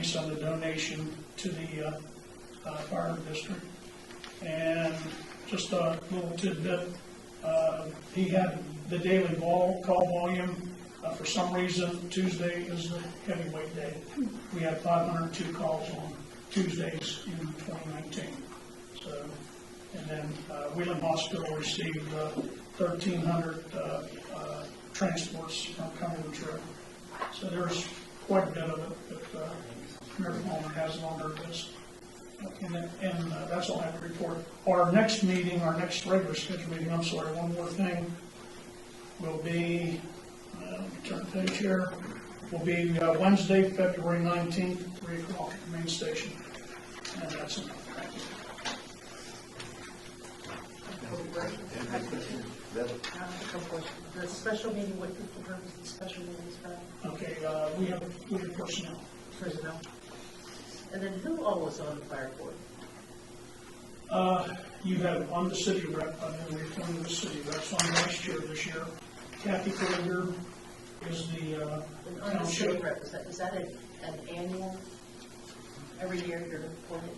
cents on the donation to the uh, uh, fire district. And just a little tidbit, uh, he had the daily vol- call volume, uh, for some reason Tuesday is the heavyweight day. We had 502 calls on Tuesdays in 2019. So, and then uh, Wheeling Hospital received uh, 1,300 uh, uh, transports from Cumberland Trail. So there's quite a bit of it, but uh, Mayor Palmer has it on her list. And, that- and uh, that's all I have to report. Our next meeting, our next regular scheduled meeting, I'm sorry, one more thing, will be, uh, turn the page here, will be uh, Wednesday, February 19th, 3 o'clock at the main station. And that's it. Thank you. The special meeting, what is the purpose of the special meeting is for Okay, uh, we have, we have personnel. personnel? And then who all was on the fire board? Uh, You have, on the city rep, I know we're appointed the city rep, so I'm vice chair this year. Kathy Kroger is the uh, And on the city township. rep, is that, is that an, an annual, every year you're appointed?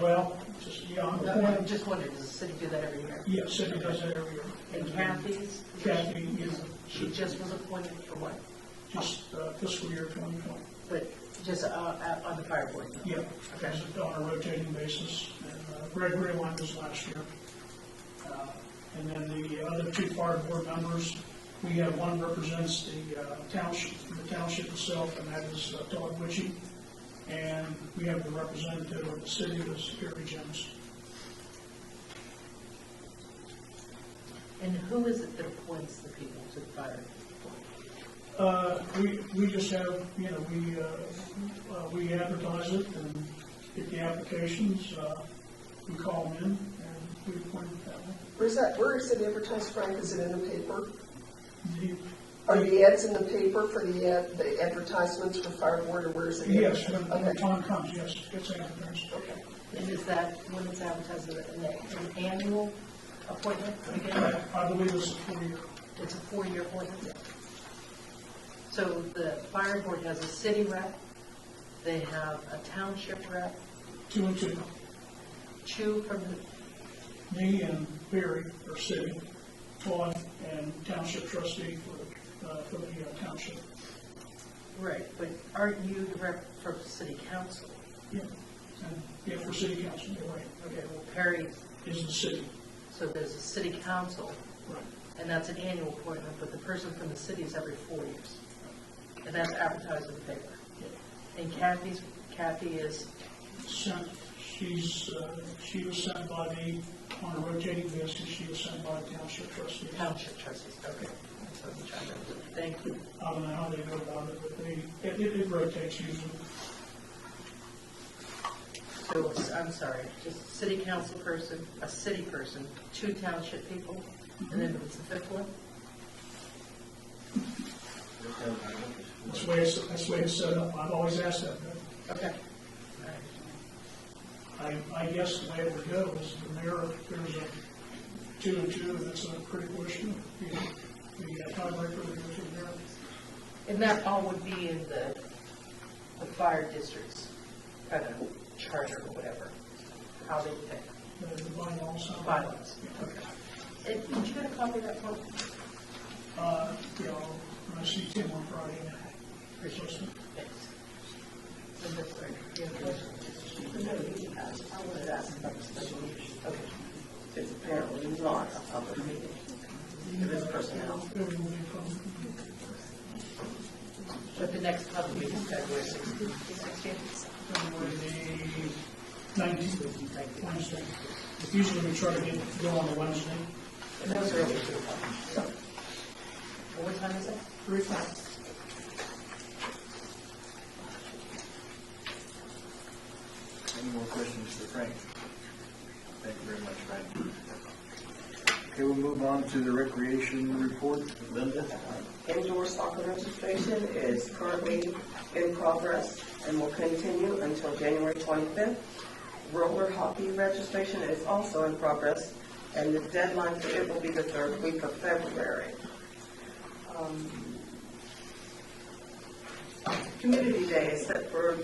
Well, just, yeah, I'm No, I appointed, just wondered, does the city do that every year? yeah, city does that every year. And Kathy's? Kathy is She just was appointed for what? just uh, fiscal year 2020. But just, uh, uh, on the fire board? no? Yeah, that's it, on a rotating basis. And uh, Gregory one was last year. Uh, And then the other two fire board members, we have one represents the uh, township, the township itself, and that is uh, Todd Witchy. And we have a representative of the city, that's Gary Jones. And who is it that appoints the people to the fire board? Uh, We, we just have, you know, we, uh, uh, we advertise it and get the applications, uh, we call them in, and we appoint them that way. Where's that, where is it advertised, Frank? Is it in the paper? The- Are the ads in the paper for the ad, the advertisements for fire board, or where is it? Yes, when when the Okay. time comes, yes, it's advertised. And is that, when it's advertised, is it an an annual appointment again? I believe it's a four-year. It's a four-year appointment? So the fire board has a city rep, they have a township rep, two and two. two from the, Me and Barry are sitting, Todd and township trustee for, uh, for the uh, township. right, but aren't you the rep for city council? Yeah, and, yeah, for city council, you're right, Okay, well, Perry, is the city. so there's a city council, Right. and that's an annual appointment, but the person from the city is every four years. And that's advertised in the paper. And Kathy's, Kathy is, Sent, she's, uh, she was sent by the, on a rotating basis, she was sent by the township trustee. Township trustees, okay. That's what I'm trying to remember. Thank you. I don't know how they go about it, but they, it- it, it rotates usually. So, it's- I'm sorry, just city council person, a city person, two township people, and then what's the fifth one? That's the way it's, that's the way it's set up. I've always asked that, but Okay. I, I guess the way it would go is the mayor, if there's a two and two, that's a pretty question. You know, you got tiebreaker, we go to the mayor. And that all would be in the, the fire district's kind of charter or whatever, how they pick uh, The- The bylaws. how- bylaws. And did you get a copy of that one? Uh, you know, I see Tim on Friday night. It's just- Thanks. And this, right, you have a question? I wanted to ask about the special meeting. Okay. It's apparently not a public meeting. It is personnel. it would be from- But the next public meeting is February sixteenth. February the nineteenth, Wednesday. Usually we try to get, go on a Wednesday. And that was early, too. What time is it? Three o'clock. Any more questions for Frank? Thank you very much, Frank. Okay, we'll move on to the recreation report. Linda? Indoor soccer registration is currently in progress and will continue until January 25th. Roller hockey registration is also in progress, and the deadline for it will be the third week of February. Um, Community Day is set for